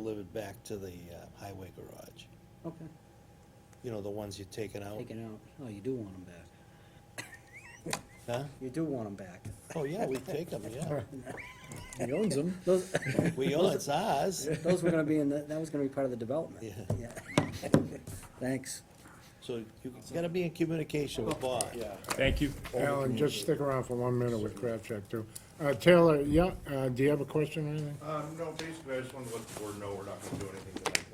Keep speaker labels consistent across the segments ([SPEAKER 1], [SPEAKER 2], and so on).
[SPEAKER 1] delivered back to the uh, highway garage.
[SPEAKER 2] Okay,
[SPEAKER 1] You know, the ones you're taking out.
[SPEAKER 2] take it out. Oh, you do want them back.
[SPEAKER 1] Huh?
[SPEAKER 2] You do want them back.
[SPEAKER 1] Oh, yeah, we take them, yeah.
[SPEAKER 3] He owns them.
[SPEAKER 2] Those,
[SPEAKER 1] We own, it's ours.
[SPEAKER 2] those were gonna be in, the- that was gonna be part of the development.
[SPEAKER 1] Yeah.
[SPEAKER 2] Yeah. Thanks.
[SPEAKER 1] So you gotta be in communication with Bob. Yeah.
[SPEAKER 4] Thank you.
[SPEAKER 3] Alan, just stick around for one minute with Crabcheck too. Uh, Taylor, yeah, uh, do you have a question or anything?
[SPEAKER 5] Um, no, basically, I just wanted to let the board know we're not gonna do anything tonight,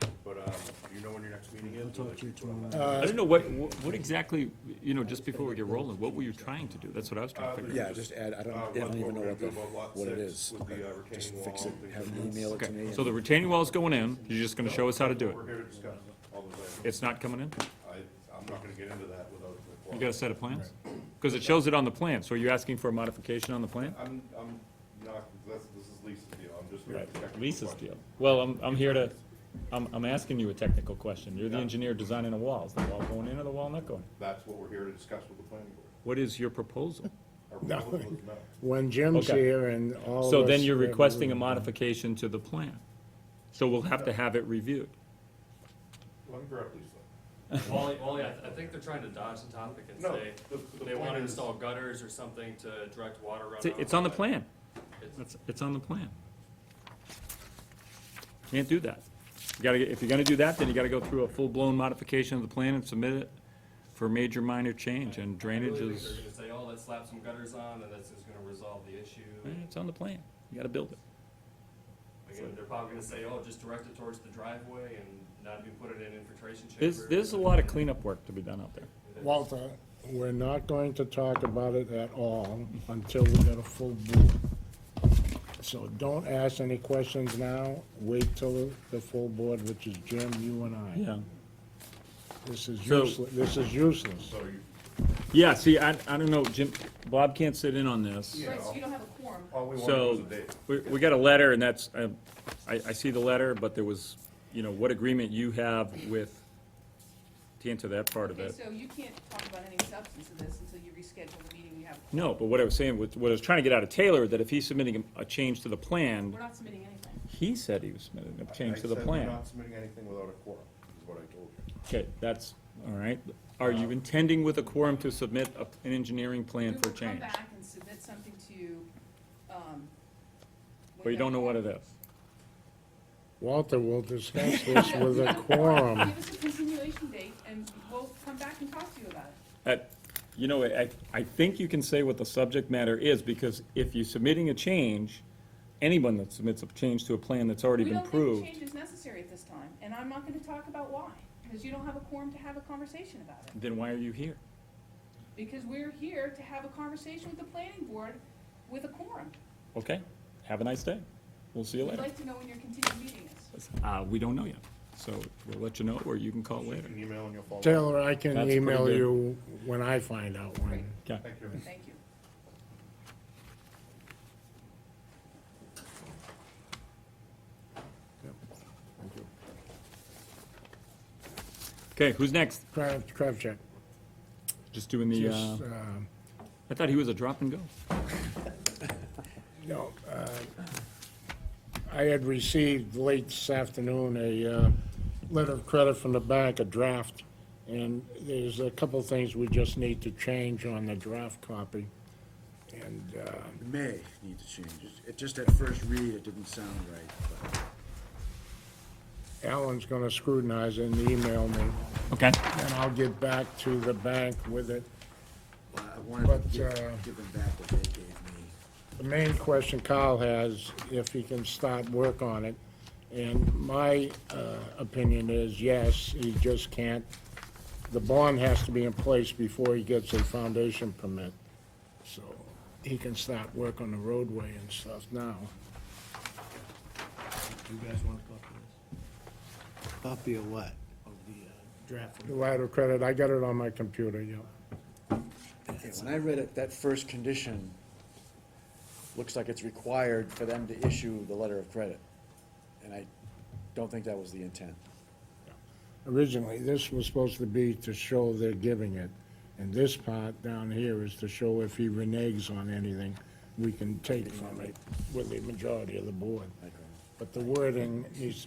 [SPEAKER 5] then. but, um, do you know when your next meeting is?
[SPEAKER 2] Talk to you tomorrow.
[SPEAKER 4] I don't know, what, what what exactly, you know, just before we get rolling, what were you trying to do? That's what I was trying to figure out.
[SPEAKER 6] Yeah, just add, I don't,
[SPEAKER 5] Uh,
[SPEAKER 6] I don't even know
[SPEAKER 5] we're
[SPEAKER 6] what the,
[SPEAKER 5] gonna do about lot
[SPEAKER 6] what it
[SPEAKER 5] six
[SPEAKER 6] is.
[SPEAKER 5] With the uh,
[SPEAKER 6] Just
[SPEAKER 5] retaining wall.
[SPEAKER 6] fix it,
[SPEAKER 5] the-
[SPEAKER 6] have them email it to me.
[SPEAKER 4] Okay, so the retaining wall's going in, you're just gonna show us how to do
[SPEAKER 5] We're
[SPEAKER 4] it.
[SPEAKER 5] here to discuss all those items.
[SPEAKER 4] It's not coming in?
[SPEAKER 5] I, I'm not gonna get into that without. the
[SPEAKER 4] You
[SPEAKER 5] board.
[SPEAKER 4] got a set of plans? Because it shows it on the plan, so are you asking for a modification on the plan?
[SPEAKER 5] I'm, I'm not, this, this is Lisa's deal, I'm just. gonna check the
[SPEAKER 4] Lisa's
[SPEAKER 5] question.
[SPEAKER 4] deal. Well, I'm, I'm here to, I'm, I'm asking you a technical question. You're the engineer designing a wall. Is the wall going in or the wall not going?
[SPEAKER 5] That's what we're here to discuss with the planning board.
[SPEAKER 4] What is your proposal?
[SPEAKER 5] Our proposal is no.
[SPEAKER 3] When Jim's
[SPEAKER 4] Okay.
[SPEAKER 3] here and all of
[SPEAKER 4] So then
[SPEAKER 3] us-
[SPEAKER 4] you're requesting a modification to the plan. So we'll have to have it reviewed.
[SPEAKER 5] Let me grab Lisa.
[SPEAKER 7] Wally, Wally, I, I think they're trying to dodge the topic and
[SPEAKER 5] No,
[SPEAKER 7] say,
[SPEAKER 5] the- the
[SPEAKER 7] they
[SPEAKER 5] point
[SPEAKER 7] wanna
[SPEAKER 5] is-
[SPEAKER 7] install gutters or something to direct water
[SPEAKER 4] It's-
[SPEAKER 7] runoff.
[SPEAKER 4] It's on the
[SPEAKER 7] but
[SPEAKER 4] plan.
[SPEAKER 7] it's-
[SPEAKER 4] It's, it's on the plan. Can't do that. You gotta, get- if you're gonna do that, then you gotta go through a full-blown modification of the plan and submit it for major minor change, and
[SPEAKER 7] I really
[SPEAKER 4] drainage
[SPEAKER 7] think
[SPEAKER 4] is,
[SPEAKER 7] They're gonna say, oh, let's slap some gutters on, and that's just gonna resolve the issue.
[SPEAKER 4] eh, it's on the plan. You gotta build it.
[SPEAKER 7] Again, they're probably gonna say, oh, just direct it towards the driveway and not even put it in infiltration chamber.
[SPEAKER 4] There's, there's a lot of cleanup work to be done out there.
[SPEAKER 3] Walter, we're not going to talk about it at all until we get a full board. So don't ask any questions now, wait till the full board, which is Jim, you and I.
[SPEAKER 4] Yeah.
[SPEAKER 3] This is
[SPEAKER 4] So-
[SPEAKER 3] useless, this is useless.
[SPEAKER 5] So you,
[SPEAKER 4] Yeah, see, I, I don't know, Jim, Bob can't sit in on this.
[SPEAKER 5] Yeah.
[SPEAKER 8] Right, so you don't have a quorum.
[SPEAKER 5] all we wanted was a
[SPEAKER 4] So,
[SPEAKER 5] date.
[SPEAKER 4] we, we got a letter, and that's, I, I I see the letter, but there was, you know, what agreement you have with, to answer that part of
[SPEAKER 8] Okay,
[SPEAKER 4] it.
[SPEAKER 8] so you can't talk about any substance of this until you reschedule the meeting you have.
[SPEAKER 4] No, but what I was saying, was- what I was trying to get out of Taylor, that if he's submitting a a change to the plan,
[SPEAKER 8] We're not submitting anything.
[SPEAKER 4] he said he was submitting a
[SPEAKER 5] I
[SPEAKER 4] change to the
[SPEAKER 5] said we're
[SPEAKER 4] plan.
[SPEAKER 5] Not submitting anything without a quorum, is what I told you.
[SPEAKER 4] Okay, that's, all right. Are you intending with a quorum to submit a- an engineering plan for
[SPEAKER 8] We will come
[SPEAKER 4] change?
[SPEAKER 8] back and submit something to you, um.
[SPEAKER 4] But you don't know what it
[SPEAKER 8] without-
[SPEAKER 4] is.
[SPEAKER 3] Walter will discuss this with a quorum.
[SPEAKER 8] Give us a continuation date and we'll come back and talk to you about it.
[SPEAKER 4] That, you know, I, I think you can say what the subject matter is, because if you're submitting a change, anyone that submits a change to a plan that's already
[SPEAKER 8] We
[SPEAKER 4] been
[SPEAKER 8] don't think the
[SPEAKER 4] approved,
[SPEAKER 8] change is necessary at this time, and I'm not gonna talk about why, because you don't have a quorum to have a conversation about it.
[SPEAKER 4] then why are you here?
[SPEAKER 8] Because we're here to have a conversation with the planning board with a quorum.
[SPEAKER 4] Okay, have a nice day. We'll see you
[SPEAKER 8] We'd
[SPEAKER 4] later.
[SPEAKER 8] like to know when your continued meeting is.
[SPEAKER 4] Uh, we don't know yet, so we'll let you know, or you can call later.
[SPEAKER 5] An email and you'll follow. up.
[SPEAKER 3] Taylor, I can
[SPEAKER 4] That's pretty
[SPEAKER 3] email
[SPEAKER 4] good.
[SPEAKER 3] you when I find out when.
[SPEAKER 4] Okay.
[SPEAKER 5] Thank you.
[SPEAKER 8] Thank you.
[SPEAKER 4] Okay, who's next?
[SPEAKER 3] Crab, crab check.
[SPEAKER 4] Just doing the, uh,
[SPEAKER 3] Just, um,
[SPEAKER 4] I thought he was a drop and go.
[SPEAKER 3] No, uh, I had received late this afternoon a uh, letter of credit from the bank, a draft, and there's a couple of things we just need to change on the draft copy. And uh,
[SPEAKER 6] May need to change it. It just at first read, it didn't sound right, but.
[SPEAKER 3] Alan's going to scrutinize it and email me,
[SPEAKER 4] Okay.
[SPEAKER 3] and I'll get back to the bank with it.
[SPEAKER 6] Well, I wanted
[SPEAKER 3] But,
[SPEAKER 6] to
[SPEAKER 3] uh,
[SPEAKER 6] give, give them back what they gave me.
[SPEAKER 3] The main question Kyle has, if he can start work on it, and my uh, opinion is, yes, he just can't. The bond has to be in place before he gets a foundation permit, so he can start work on the roadway and stuff now.
[SPEAKER 9] You guys want to copy this,
[SPEAKER 1] Copy of what?
[SPEAKER 9] of the uh, draft?
[SPEAKER 3] The letter of credit, I got it on my computer, yeah.
[SPEAKER 6] Okay, When I read it, that first condition, looks like it's required for them to issue the letter of credit. And I don't think that was the intent.
[SPEAKER 3] Originally, this was supposed to be to show they're giving it, and this part down here is to show if he reneges on anything, we can take from it with the majority of the board.
[SPEAKER 6] Like, uh,
[SPEAKER 3] but the wording needs to